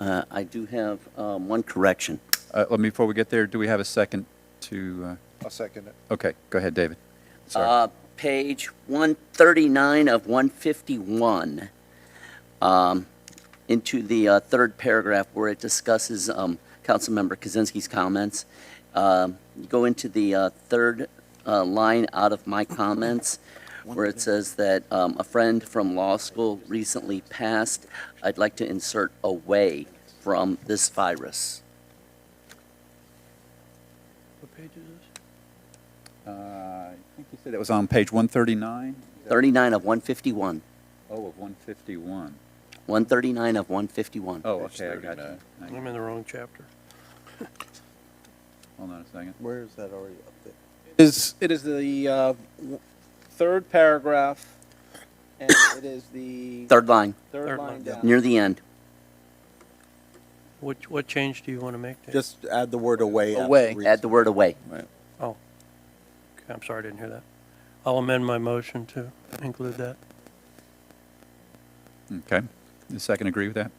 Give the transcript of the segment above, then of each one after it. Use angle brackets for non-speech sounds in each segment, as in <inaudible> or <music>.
Uh, I do have um, one correction. Uh, Let me, before we get there, do we have a second to, I'll second it. uh, okay, go ahead, David. Sorry. Uh, Page 139 of 151, um, into the uh, third paragraph where it discusses um, Councilmember Kaczynski's comments. Um, you Go into the uh, third uh, line out of my comments, where it says that um, a friend from law school recently passed. I'd like to insert away from this virus. What page is this? Uh, I think you said that was on page 139? 39 of 151, Oh, of 151. 139 of 151. Oh, Page okay, I got you. 39. Thank I'm you. in the wrong chapter. Hold on a second. Where is that already up there? Is, it is the uh, w- third paragraph, and it is <coughs> the Third line, third Third line line down. near the end. What, what change do you want to make there? Just add the word away. after Away. reason. Add the word away. Oh, Okay, I'm sorry, I didn't hear that. I'll amend my motion to include that. Okay. Does second agree with that?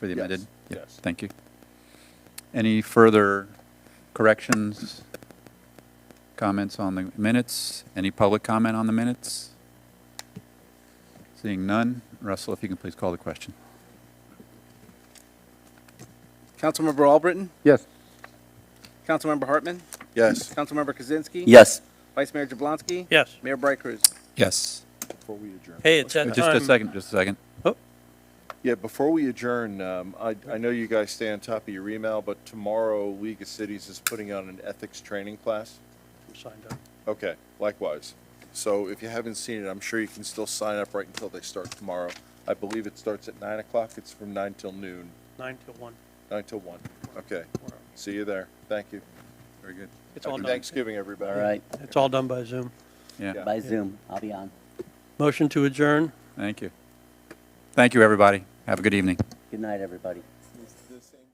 For the Yes. amended? Yeah, Yes. Thank you. Any further corrections, comments on the minutes? Any public comment on the minutes? Seeing none, Russell, if you can please call the question. Councilmember Albritton? Yes. Councilmember Hartman? Yes. Councilmember Kaczynski? Yes. Vice Mayor Jablonski? Yes. Mayor Bright Cruz? Yes. Before we adjourn. Hey, it's that time. Just a second, just a second. Oh, Yeah, before we adjourn, um, I, I know you guys stay on top of your email, but tomorrow League of Cities is putting on an ethics training class. I'm signed up. Okay, likewise. So if you haven't seen it, I'm sure you can still sign up right until they start tomorrow. I believe it starts at nine o'clock. It's from nine till noon, Nine till one. nine till one. Okay, We're- see you there. Thank you. Very good. It's all Happy done. Thanksgiving, everybody. All right. It's all done by Zoom. Yeah, Yeah. By Zoom. I'll be on. Motion to adjourn. thank you. Thank you, everybody. Have a good evening. Good night, everybody. The same-